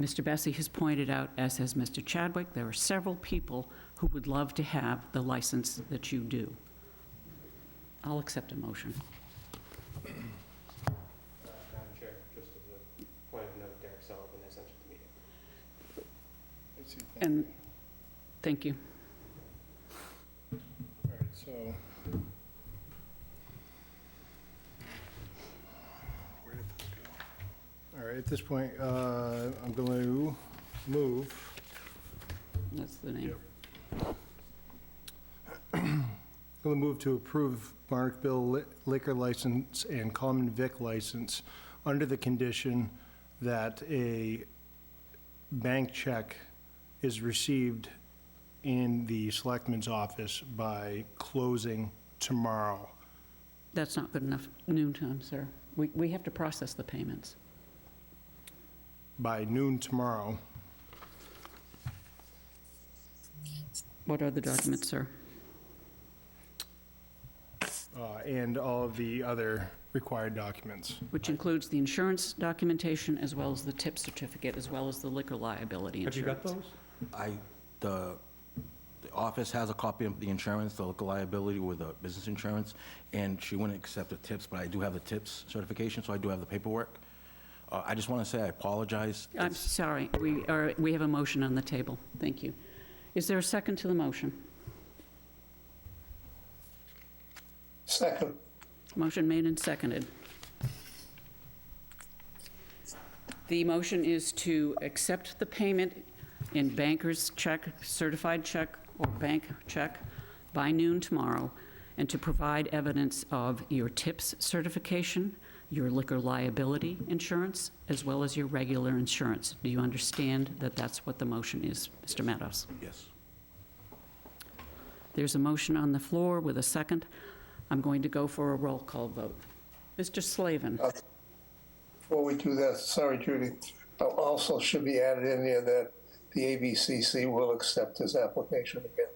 Mr. Bessie has pointed out, as has Mr. Chadwick, there are several people who would love to have the license that you do. I'll accept a motion. Uh, Madam Chair, just as a point of note, Derek Sullivan is entered the meeting. And, thank you. All right, so. Where did this go? All right, at this point, uh, I'm going to move That's the name. Yep. I'm going to move to approve Markville li- liquor license and common vic license under the condition that a bank check is received in the selectman's office by closing tomorrow. That's not good enough noon time, sir. We, we have to process the payments. By noon tomorrow, What are the documents, sir? uh, and all of the other required documents. Which includes the insurance documentation, as well as the tip certificate, as well as the liquor liability Have you insurance. got those? I, the, the office has a copy of the insurance, the local liability with the business insurance, and she wouldn't accept the tips, but I do have the tips certification, so I do have the paperwork. Uh, I just want to say I apologize. I'm It's- sorry, we are, we have a motion on the table. Thank you. Is there a second to the motion? Second, Motion made and seconded. The motion is to accept the payment in banker's check, certified check, or bank check by noon tomorrow, and to provide evidence of your TIPS certification, your liquor liability insurance, as well as your regular insurance. Do you understand that that's what the motion is, Mr. Meadows? Yes. There's a motion on the floor with a second. I'm going to go for a roll call vote. Mr. Slavin? before we do that, sorry, Judy, uh, also should be added in there that the ABCC will accept his application again.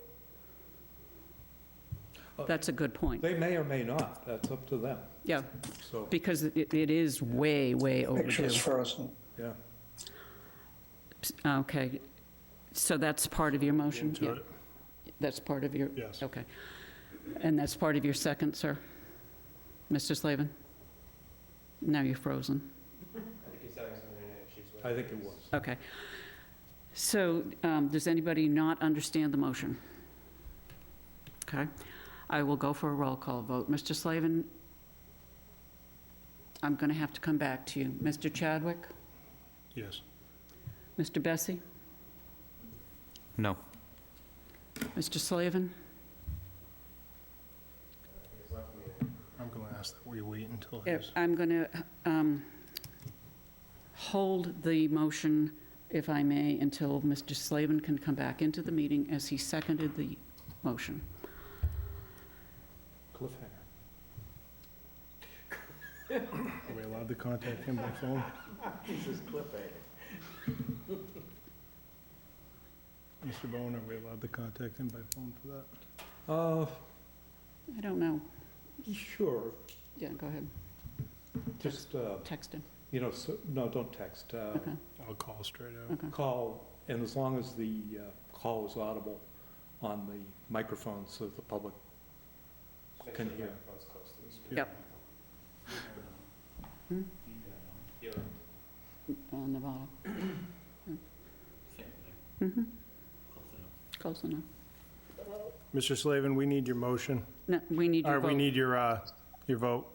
That's a good point. They may or may not, that's up to them, Yeah, so, because it it is way, way overdue. Pictures frozen. yeah. Okay, so that's part of your motion? Into it. Yeah. That's part of your? Yes. Okay. And that's part of your second, sir? Mr. Slavin? Now you're frozen. I think he's having some internet issues with. I think it was. Okay. So um, does anybody not understand the motion? Okay. I will go for a roll call vote. Mr. Slavin, I'm going to have to come back to you. Mr. Chadwick? Yes. Mr. Bessie? No. Mr. Slavin? I'm going to ask that we wait until Eh, his. I'm going to hold the motion, if I may, until Mr. Slavin can come back into the meeting as he seconded the motion. Cliffhanger. Are we allowed to contact him by phone? This is clipping. Mr. Bowen, are we allowed to contact him by phone for that? Uh, I don't know. sure, Yeah, go ahead. just, uh, Text him. you know, so, no, don't text, uh, Okay. I'll call straight out. Okay. call, and as long as the uh, call is audible on the microphone so the public Make sure Can the hear. microphone's close to the speaker. Yep. Hmm? Yeah. On the bottom. Mhm. Close enough. Mr. Slavin, we need your motion, No, we need your or vote. we need your, uh, your vote.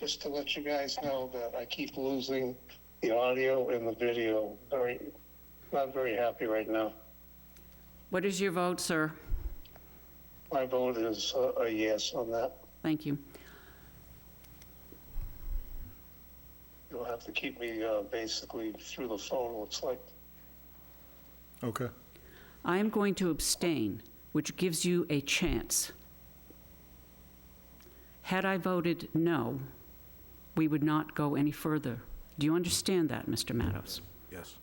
Just to let you guys know that I keep losing the audio and the video. Very, not very happy right now. What is your vote, sir? My vote is uh, a yes on that. Thank you. You'll have to keep me uh, basically through the phone, looks like. Okay. I am going to abstain, which gives you a chance. Had I voted no, we would not go any further. Do you understand that, Mr. Mattos? Yes.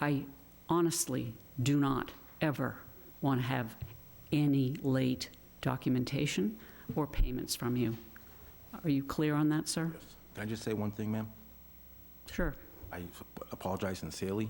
I honestly do not ever want to have any late documentation or payments from you. Are you clear on that, sir? Can I just say one thing, ma'am? Sure. I I apologize sincerely.